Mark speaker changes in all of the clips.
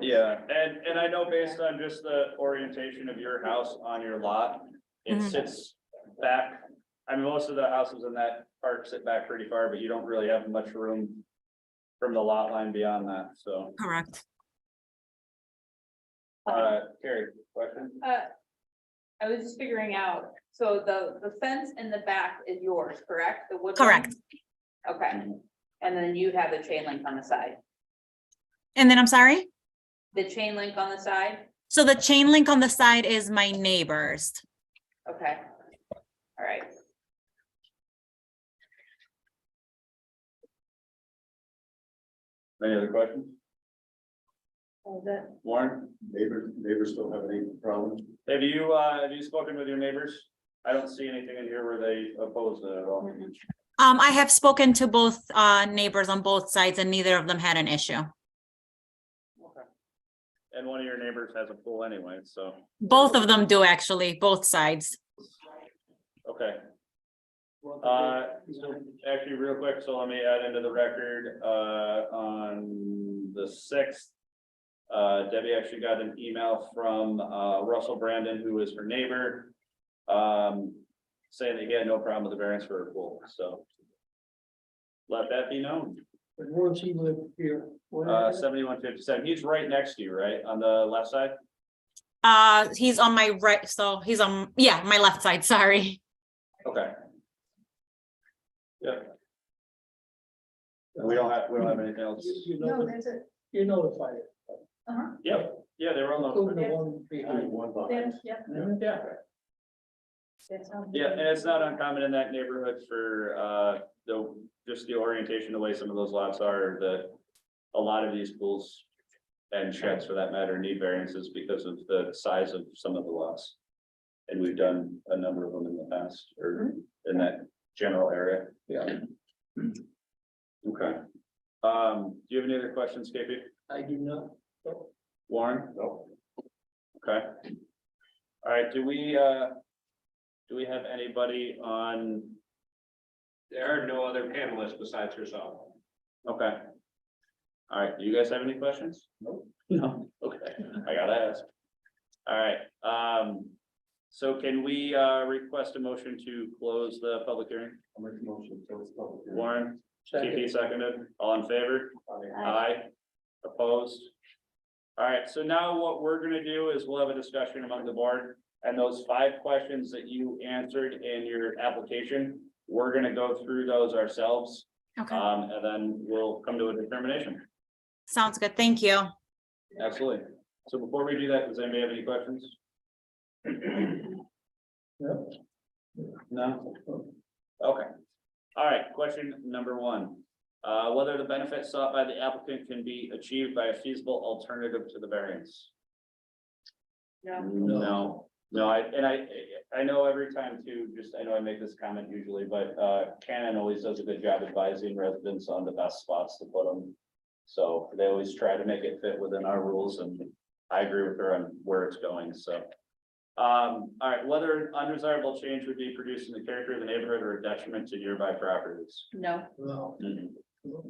Speaker 1: Yeah, and, and I know based on just the orientation of your house on your lot, it
Speaker 2: Mhm.
Speaker 1: sits back. I mean, most of the houses in that park sit back pretty far, but you don't really have much room from the lot line beyond that, so.
Speaker 2: Correct.
Speaker 1: Uh, Carrie, question?
Speaker 3: Uh, I was just figuring out, so the, the fence in the back is yours, correct? The wood. one?
Speaker 2: Correct.
Speaker 3: Okay, and then you have the chain link on the side,
Speaker 2: And then I'm sorry.
Speaker 3: the chain link on the side,
Speaker 2: So the chain link on the side is my neighbor's.
Speaker 3: okay, all right.
Speaker 1: Any other questions?
Speaker 3: Oh, That
Speaker 1: Warren,
Speaker 4: Neighbors, neighbors don't have any problem.
Speaker 1: have you, uh, have you spoken with your neighbors? I don't see anything in here where they oppose it at all.
Speaker 2: Um, I have spoken to both uh neighbors on both sides and neither of them had an issue.
Speaker 1: And one of your neighbors has a pool anyway, so,
Speaker 2: Both of them do actually, both sides.
Speaker 1: okay. Uh, so actually, real quick, so let me add into the record, uh, on the sixth. Uh, Debbie actually got an email from, uh, Russell Brandon, who is her neighbor. Um, saying that he had no problem with the variance for her pool, so. Let that be known,
Speaker 5: But once he lived here. where-
Speaker 1: uh, seventy-one fifty-seven, he's right next to you, right, on the left side?
Speaker 2: Uh, he's on my right, so he's on, yeah, my left side, sorry.
Speaker 1: Okay. Yeah. And we don't have, we don't have anything else,
Speaker 5: You- You know,
Speaker 3: that's it.
Speaker 5: you notified it.
Speaker 3: uh-huh,
Speaker 1: yep, yeah, they were on
Speaker 5: Including
Speaker 1: the,
Speaker 5: the one behind.
Speaker 4: One lot.
Speaker 3: yeah.
Speaker 1: yeah. Yeah, and it's not uncommon in that neighborhood for, uh, the, just the orientation, the way some of those lots are, that a lot of these pools and sheds for that matter need variances because of the size of some of the lots. And we've done a number of them in the past, or in that general area. Yeah. Okay. Um, do you have any other questions, KP?
Speaker 5: I do not.
Speaker 1: Warren?
Speaker 4: No.
Speaker 1: Okay. All right, do we, uh, do we have anybody on? There are no other panelists besides yourself. Okay. All right, do you guys have any questions? No. No, okay, I gotta ask. All right, um, so can we, uh, request a motion to close the public hearing?
Speaker 4: I'll make a motion to close public hearing.
Speaker 1: Warren,
Speaker 5: Second.
Speaker 1: TP seconded, all in favor?
Speaker 3: Uh,
Speaker 1: Aye. Opposed? All right, so now what we're gonna do is we'll have a discussion among the board, and those five questions that you answered in your application, we're gonna go through those ourselves,
Speaker 2: Okay,
Speaker 1: um, and then we'll come to a determination.
Speaker 2: sounds good, thank you.
Speaker 1: Absolutely. So before we do that, does anybody have any questions?
Speaker 5: No.
Speaker 1: No? Okay. All right, question number one. Uh, whether the benefit sought by the applicant can be achieved by a feasible alternative to the variance?
Speaker 3: No,
Speaker 1: No, no, I, and I, I know every time too, just, I know I make this comment usually, but, uh, Canon always does a good job advising residents on the best spots to put them. So they always try to make it fit within our rules and I agree with her on where it's going, so. Um, all right, whether an undesirable change would be produced in the character of the neighborhood or a detriment to nearby properties. Mm-hmm.
Speaker 3: no,
Speaker 5: No.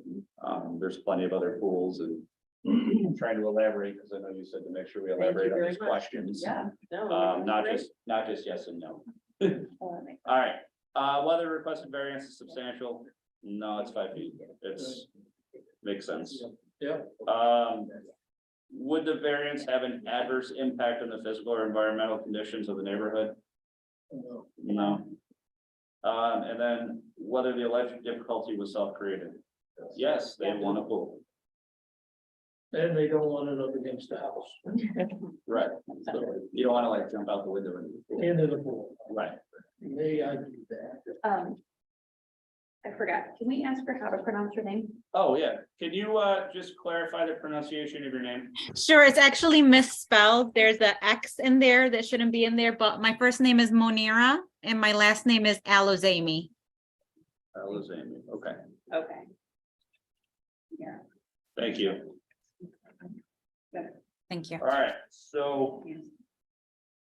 Speaker 1: Um, there's plenty of other pools and I'm trying to elaborate, because I know you said to make sure we elaborate on these questions.
Speaker 3: yeah.
Speaker 1: Um, not just, not just yes and no.
Speaker 3: Oh,
Speaker 1: All right, uh, whether requested variance is substantial, no, it's five feet, it's, makes sense.
Speaker 5: Yeah.
Speaker 1: Um, would the variance have an adverse impact on the physical or environmental conditions of the neighborhood?
Speaker 5: No.
Speaker 1: No. Um, and then whether the alleged difficulty was self-created? Yes, they want a pool,
Speaker 5: And they don't want it up against the house,
Speaker 1: right, so you don't wanna like jump out the window and.
Speaker 5: into the pool.
Speaker 1: Right,
Speaker 5: May I do that?
Speaker 3: Um. I forgot, can we ask her how to pronounce her name?
Speaker 1: oh, yeah, can you, uh, just clarify the pronunciation of your name?
Speaker 2: Sure, it's actually misspelled. There's a X in there that shouldn't be in there, but my first name is Monira and my last name is Alozami.
Speaker 1: That was Amy, okay.
Speaker 3: Okay.
Speaker 1: Thank you.
Speaker 2: Thank you.
Speaker 1: All right, so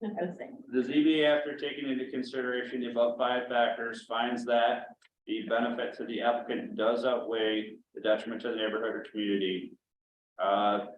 Speaker 3: I was saying.
Speaker 1: the ZBA, after taking into consideration the above five factors, finds that the benefit to the applicant does outweigh the detriment to the neighborhood or community. Uh,